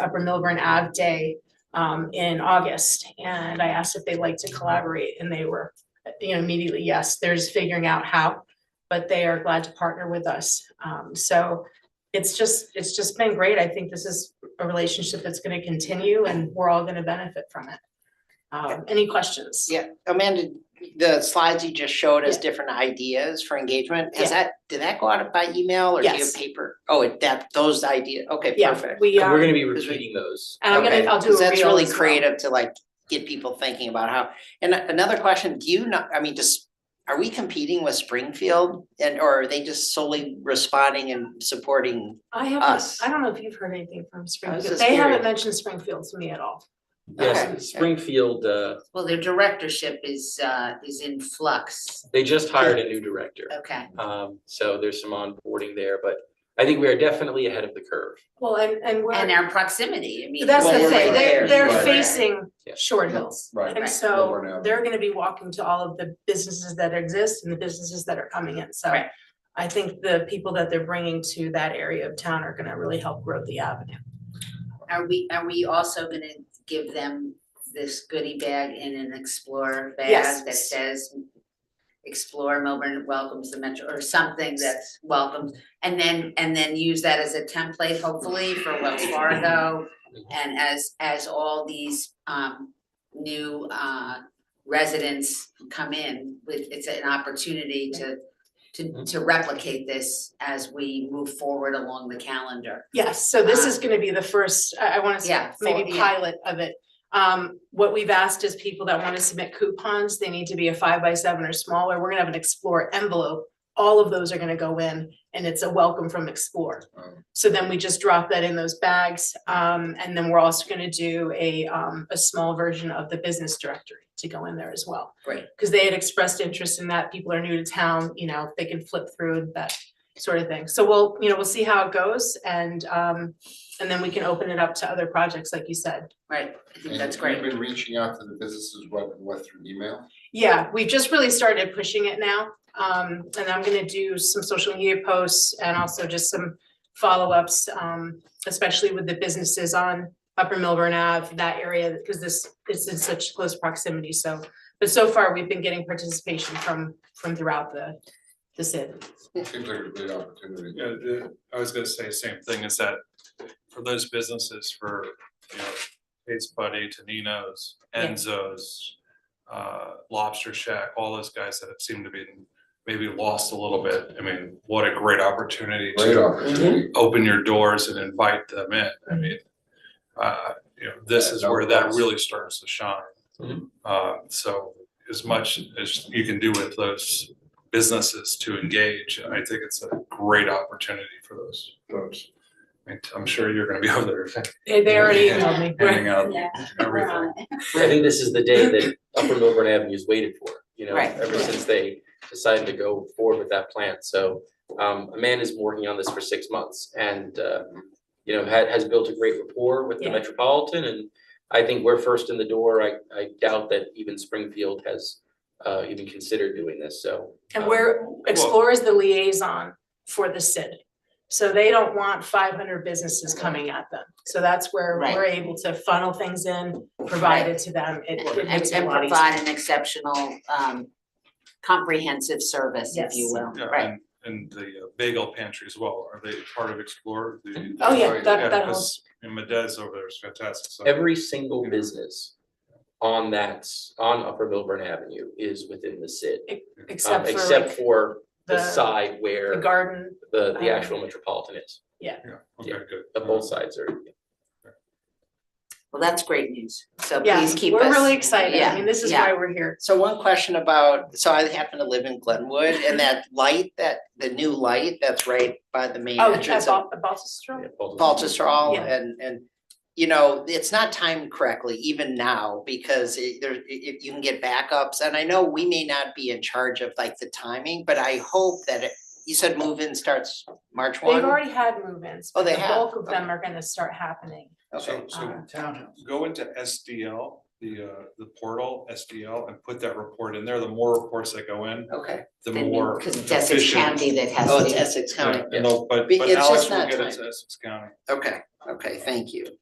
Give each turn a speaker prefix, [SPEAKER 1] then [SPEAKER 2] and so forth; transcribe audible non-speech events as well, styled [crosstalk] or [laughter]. [SPEAKER 1] Upper Milburn Ave Day um, in August. And I asked if they'd like to collaborate and they were, you know, immediately, yes, there's figuring out how, but they are glad to partner with us. Um, so it's just, it's just been great. I think this is a relationship that's going to continue and we're all going to benefit from it. Um, any questions?
[SPEAKER 2] Yeah, Amanda, the slides you just showed us different ideas for engagement, has that, did that go out by email or do you have
[SPEAKER 1] Yes.
[SPEAKER 2] paper? Oh, it- that, those ideas, okay,
[SPEAKER 1] Yeah,
[SPEAKER 2] perfect.
[SPEAKER 1] we,
[SPEAKER 3] And
[SPEAKER 1] um,
[SPEAKER 3] we're gonna be
[SPEAKER 2] Is it-
[SPEAKER 3] repeating those.
[SPEAKER 1] and I'm
[SPEAKER 2] Okay,
[SPEAKER 1] gonna, I'll do a
[SPEAKER 2] 'cause That's
[SPEAKER 1] reel
[SPEAKER 2] really
[SPEAKER 1] as well.
[SPEAKER 2] creative to like get people thinking about how, and a- another question, do you know, I mean, just, are we competing with Springfield? And, or are they just solely responding and supporting
[SPEAKER 1] I haven't,
[SPEAKER 2] us?
[SPEAKER 1] I don't know if you've heard anything from Springfield.
[SPEAKER 2] just
[SPEAKER 1] They haven't
[SPEAKER 2] curious.
[SPEAKER 1] mentioned Springfield to me at all.
[SPEAKER 2] Okay.
[SPEAKER 3] Yes, Springfield, uh,
[SPEAKER 4] Well, their directorship is uh is in flux,
[SPEAKER 3] they just hired a new director.
[SPEAKER 4] okay.
[SPEAKER 3] Um, so there's some onboarding there, but I think we are definitely ahead of the curve.
[SPEAKER 1] Well, and, and we're.
[SPEAKER 4] And our proximity, I mean.
[SPEAKER 1] That's
[SPEAKER 3] Well,
[SPEAKER 1] the
[SPEAKER 3] we're
[SPEAKER 1] thing,
[SPEAKER 3] right
[SPEAKER 1] they're,
[SPEAKER 3] there.
[SPEAKER 1] they're
[SPEAKER 3] Right.
[SPEAKER 1] facing
[SPEAKER 3] Yeah.
[SPEAKER 1] Short Hills.
[SPEAKER 5] Right.
[SPEAKER 1] And
[SPEAKER 4] Right.
[SPEAKER 5] Milburn
[SPEAKER 1] so
[SPEAKER 5] Avenue.
[SPEAKER 1] they're gonna be walking to all of the businesses that exist and the businesses that are coming in, so.
[SPEAKER 4] Right.
[SPEAKER 1] I think the people that they're bringing to that area of town are gonna really help grow the avenue.
[SPEAKER 4] Are we, are we also gonna give them this goodie bag in an Explorer
[SPEAKER 1] Yes.
[SPEAKER 4] bag that says Explore Melbourne welcomes the metro, or something that's welcomes, and then, and then use that as a template hopefully for Wells Fargo and as, as all these um new uh residents come in, with, it's an opportunity to to to replicate this as we move forward along the calendar.
[SPEAKER 1] Yes, so
[SPEAKER 3] Uh-huh.
[SPEAKER 1] this is gonna be the first, I, I wanna say,
[SPEAKER 4] Yeah, for-
[SPEAKER 1] maybe
[SPEAKER 4] yeah.
[SPEAKER 1] pilot of it. Um, what we've asked is people that wanna submit coupons, they need to be a five by seven or smaller, we're gonna have an Explore envelope. All of those are gonna go in, and it's a welcome from Explore.
[SPEAKER 5] Um,
[SPEAKER 1] So then we just drop that in those bags, um, and then we're also gonna do a, um, a small version of the business directory to go in there as well.
[SPEAKER 4] Great.
[SPEAKER 1] Cause they had expressed interest in that, people are new to town, you know, they can flip through that sort of thing. So we'll, you know, we'll see how it goes and, um, and then we can open it up to other projects, like you said.
[SPEAKER 4] Right, I think
[SPEAKER 5] and
[SPEAKER 4] that's
[SPEAKER 5] You've
[SPEAKER 4] great.
[SPEAKER 5] been reaching out to the businesses, what, what through email?
[SPEAKER 1] Yeah, we've just really started pushing it now, um, and I'm gonna do some social media posts and also just some follow-ups, um, especially with the businesses on Upper Milburn Ave, that area, because this is in such close proximity, so. But so far, we've been getting participation from, from throughout the, the city.
[SPEAKER 5] Seems like a great opportunity.
[SPEAKER 6] Yeah, the- I was gonna say the same thing, is that for those businesses, for, you know, Taste Buddy, Tonino's,
[SPEAKER 1] Yeah.
[SPEAKER 6] Enzo's, uh, Lobster Shack, all those guys that have seemed to be maybe lost a little bit, I mean, what a great opportunity
[SPEAKER 5] Great
[SPEAKER 6] to
[SPEAKER 5] opportunity.
[SPEAKER 6] open your doors and invite them in, I
[SPEAKER 1] Mm-hmm.
[SPEAKER 6] mean, uh, you know, this
[SPEAKER 5] Yeah,
[SPEAKER 6] is
[SPEAKER 5] no
[SPEAKER 6] where that
[SPEAKER 5] cost.
[SPEAKER 6] really starts to shine.
[SPEAKER 3] Mhm.
[SPEAKER 6] Uh, so as much as you can do with those businesses to engage, I think it's a great opportunity for those folks. I mean, I'm sure you're gonna be [laughs] over there
[SPEAKER 1] They they already emailed me.
[SPEAKER 6] handing out everything.
[SPEAKER 3] I think this is the day that Upper Milburn Avenue's waited for, you know,
[SPEAKER 4] Right.
[SPEAKER 3] ever since they decided to go forward with that plan. So um Amanda's been working on this for six months and uh, you know, had has built a great rapport with the
[SPEAKER 1] Yeah.
[SPEAKER 3] Metropolitan and I think we're first in the door. I I doubt that even Springfield has uh even considered doing this, so.
[SPEAKER 1] And
[SPEAKER 3] um,
[SPEAKER 1] we're, Explore is the liaison for the city. So they don't want five hundred businesses coming at them. So that's where
[SPEAKER 4] Right.
[SPEAKER 1] we're able to funnel things in, provide it to them. It it
[SPEAKER 4] And
[SPEAKER 1] makes it a
[SPEAKER 4] and
[SPEAKER 1] lot easier.
[SPEAKER 4] provide an exceptional um comprehensive service, if you
[SPEAKER 1] Yes.
[SPEAKER 4] will,
[SPEAKER 6] Yeah,
[SPEAKER 4] right?
[SPEAKER 6] and- And the uh, bagel pantry as well, are they part of Explore? The-
[SPEAKER 1] Oh, yeah,
[SPEAKER 5] Yeah,
[SPEAKER 1] that, that whole,
[SPEAKER 6] 'cause- And Madez over there is fantastic, so.
[SPEAKER 3] Every single business on that, s- on Upper Milburn Avenue is within the SID. um,
[SPEAKER 1] except for
[SPEAKER 3] Except
[SPEAKER 1] like
[SPEAKER 3] for the
[SPEAKER 1] the,
[SPEAKER 3] side
[SPEAKER 1] the
[SPEAKER 3] where
[SPEAKER 1] garden,
[SPEAKER 3] the the actual
[SPEAKER 1] um,
[SPEAKER 3] Metropolitan is,
[SPEAKER 6] Yeah, okay, good.
[SPEAKER 3] the both sides are.
[SPEAKER 4] Well, that's great news, so
[SPEAKER 1] yeah,
[SPEAKER 4] please keep us.
[SPEAKER 1] we're really excited. I
[SPEAKER 4] Yeah,
[SPEAKER 1] mean, this is
[SPEAKER 4] yeah.
[SPEAKER 1] why we're here.
[SPEAKER 2] So one question about, so I happen to live in Glenwood and that light, that, the new light that's right by the main
[SPEAKER 1] Oh,
[SPEAKER 2] entrance
[SPEAKER 1] that's
[SPEAKER 2] of
[SPEAKER 1] all, Balsastrom?
[SPEAKER 3] yeah, both of them.
[SPEAKER 2] Baltusrol
[SPEAKER 1] Yeah.
[SPEAKER 2] and, and, you know, it's not timed correctly even now because it, there, i- if you can get backups. And I know we may not be in charge of like the timing, but I hope that it, you said move-in starts March
[SPEAKER 1] They've
[SPEAKER 2] one?
[SPEAKER 1] already had move-ins,
[SPEAKER 2] Oh,
[SPEAKER 1] but
[SPEAKER 2] they
[SPEAKER 1] the
[SPEAKER 2] have?
[SPEAKER 1] bulk of them
[SPEAKER 2] Okay.
[SPEAKER 1] are gonna start happening.
[SPEAKER 2] Okay,
[SPEAKER 6] So, so
[SPEAKER 1] Um,
[SPEAKER 6] go into SDL, the, uh, the portal SDL and put that report in there. The more reports that go in,
[SPEAKER 2] okay.
[SPEAKER 6] the more
[SPEAKER 4] Cause
[SPEAKER 6] efficient.
[SPEAKER 4] it's Essex County that has
[SPEAKER 2] Oh, it's
[SPEAKER 4] to,
[SPEAKER 2] Essex
[SPEAKER 6] Yeah,
[SPEAKER 2] County.
[SPEAKER 6] and they'll- But,
[SPEAKER 2] Be-
[SPEAKER 6] but
[SPEAKER 2] it's
[SPEAKER 6] Alex
[SPEAKER 2] just
[SPEAKER 6] will
[SPEAKER 2] not
[SPEAKER 6] get it
[SPEAKER 2] timed.
[SPEAKER 6] to Essex County.
[SPEAKER 2] Okay, okay, thank you.